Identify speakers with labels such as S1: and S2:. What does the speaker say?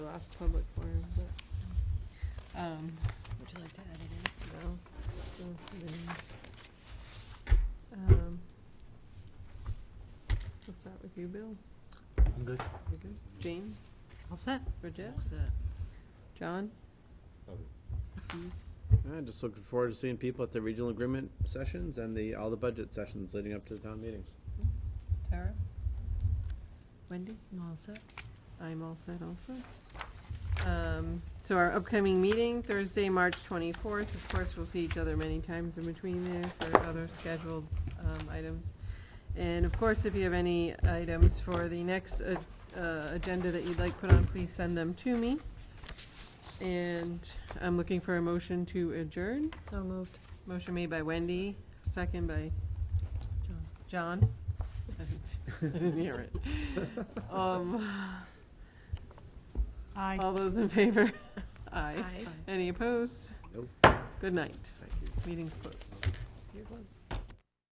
S1: that's public forum, but, um,
S2: Would you like to add it in?
S1: no. don't put it in. Um, We'll start with you, Bill.
S3: I'm good.
S1: You good? Jane,
S2: All set.
S1: Bridget,
S2: All set.
S1: John? Hmm?
S3: I'm just looking forward to seeing people at the regional agreement sessions and the, all the budget sessions leading up to the town meetings.
S1: Tara? Wendy?
S2: All set.
S1: I'm all set also. Um, So our upcoming meeting, Thursday, March 24th, of course, we'll see each other many times in between there for other scheduled um, items. And of course, if you have any items for the next uh, uh, agenda that you'd like put on, please send them to me. And I'm looking for a motion to adjourn.
S2: So moved.
S1: Motion made by Wendy, second by
S2: John.
S1: John? I didn't hear it. Um, All those in favor? Aye.
S2: Aye.
S1: Any opposed?
S3: Nope.
S1: Good night.
S3: Thank you.
S1: Meeting's closed. You're closed.